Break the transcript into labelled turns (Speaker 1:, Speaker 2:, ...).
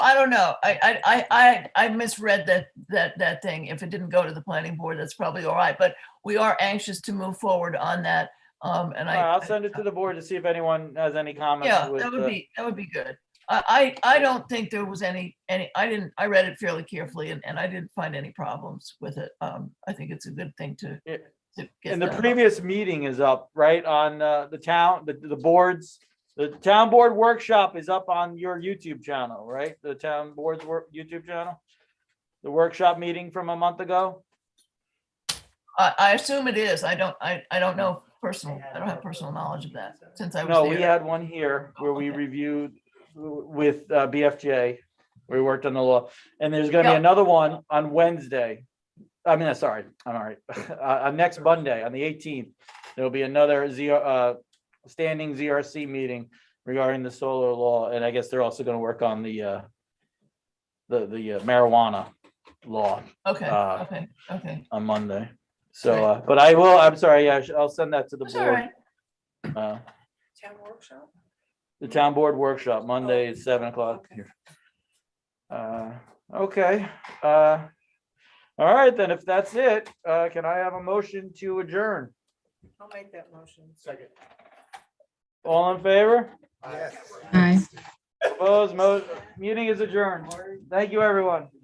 Speaker 1: don't know. I, I, I, I I misread that, that, that thing. If it didn't go to the planning board, that's probably all right, but we are anxious to move forward on that. Um, and I.
Speaker 2: I'll send it to the board to see if anyone has any comments.
Speaker 1: Yeah,
Speaker 2: with
Speaker 1: that
Speaker 2: the-
Speaker 1: would be, that would be good. I, I, I don't think there was any, any, I didn't, I read it fairly carefully and, and I didn't find any problems with it. Um, I think it's a good thing to.
Speaker 2: Yeah.
Speaker 1: to get
Speaker 2: And the
Speaker 1: done.
Speaker 2: previous meeting is up, right, on uh, the town, the, the boards, the town board workshop is up on your YouTube channel, right? The town board's work, YouTube channel? The workshop meeting from a month ago?
Speaker 1: I, I assume it is. I don't, I, I don't know personal, I don't have personal knowledge of that since I
Speaker 2: No,
Speaker 1: was
Speaker 2: we
Speaker 1: there. Oh,
Speaker 2: had one here where we
Speaker 1: Okay.
Speaker 2: reviewed w- with uh, BFJ. We worked on the law, and there's gonna be
Speaker 1: Yeah.
Speaker 2: another one on Wednesday. I mean, uh, sorry, I'm all right. Uh, on next Monday, on the eighteenth, there'll be another Z, uh, standing ZRC meeting regarding the solar law, and I guess they're also gonna work on the, uh, the, the uh, marijuana law
Speaker 1: Okay,
Speaker 2: uh,
Speaker 1: okay, okay.
Speaker 2: on Monday. So, uh, but I will, I'm sorry, I sh- I'll send that to the
Speaker 1: That's all
Speaker 2: board.
Speaker 1: right.
Speaker 2: uh,
Speaker 3: Town workshop?
Speaker 2: The town board workshop, Monday at seven o'clock. here. Uh, Okay, uh, all right, then, if that's it, uh, can I have a motion to adjourn?
Speaker 3: I'll make that motion.
Speaker 4: Second.
Speaker 2: All in favor?
Speaker 4: Yes.
Speaker 5: Aye.
Speaker 2: Opposed, mo- meeting is adjourned. Thank you, everyone.